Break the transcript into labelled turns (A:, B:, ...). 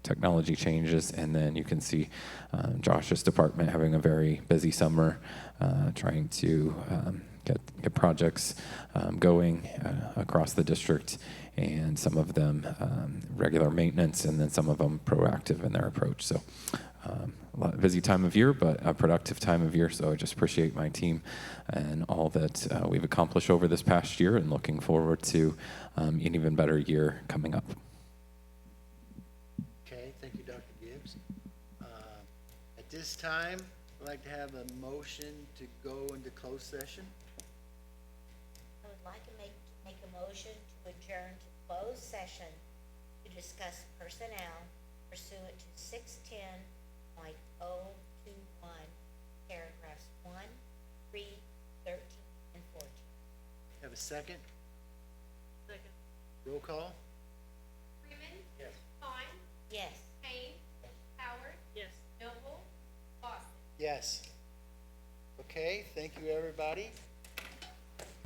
A: technology changes. And then you can see um, Josh's department having a very busy summer uh, trying to um, get, get projects um, going uh, across the district and some of them um, regular maintenance and then some of them proactive in their approach. So um, a lot, busy time of year, but a productive time of year. So I just appreciate my team and all that uh, we've accomplished over this past year and looking forward to um, an even better year coming up.
B: Okay, thank you, Dr. Gibbs. Uh, At this time, I'd like to have a motion to go into closed session.
C: I would like to make, make a motion to adjourn to closed session to discuss personnel pursuant to six ten point oh two one, paragraphs one, three, thirteen, and fourteen.
B: Have a second? Second. Roll call?
D: Freeman.
B: Yes.
D: Vaughn.
C: Yes.
D: Kane. Howard. Yes. Noble. Lawson.
B: Yes. Okay, thank you, everybody.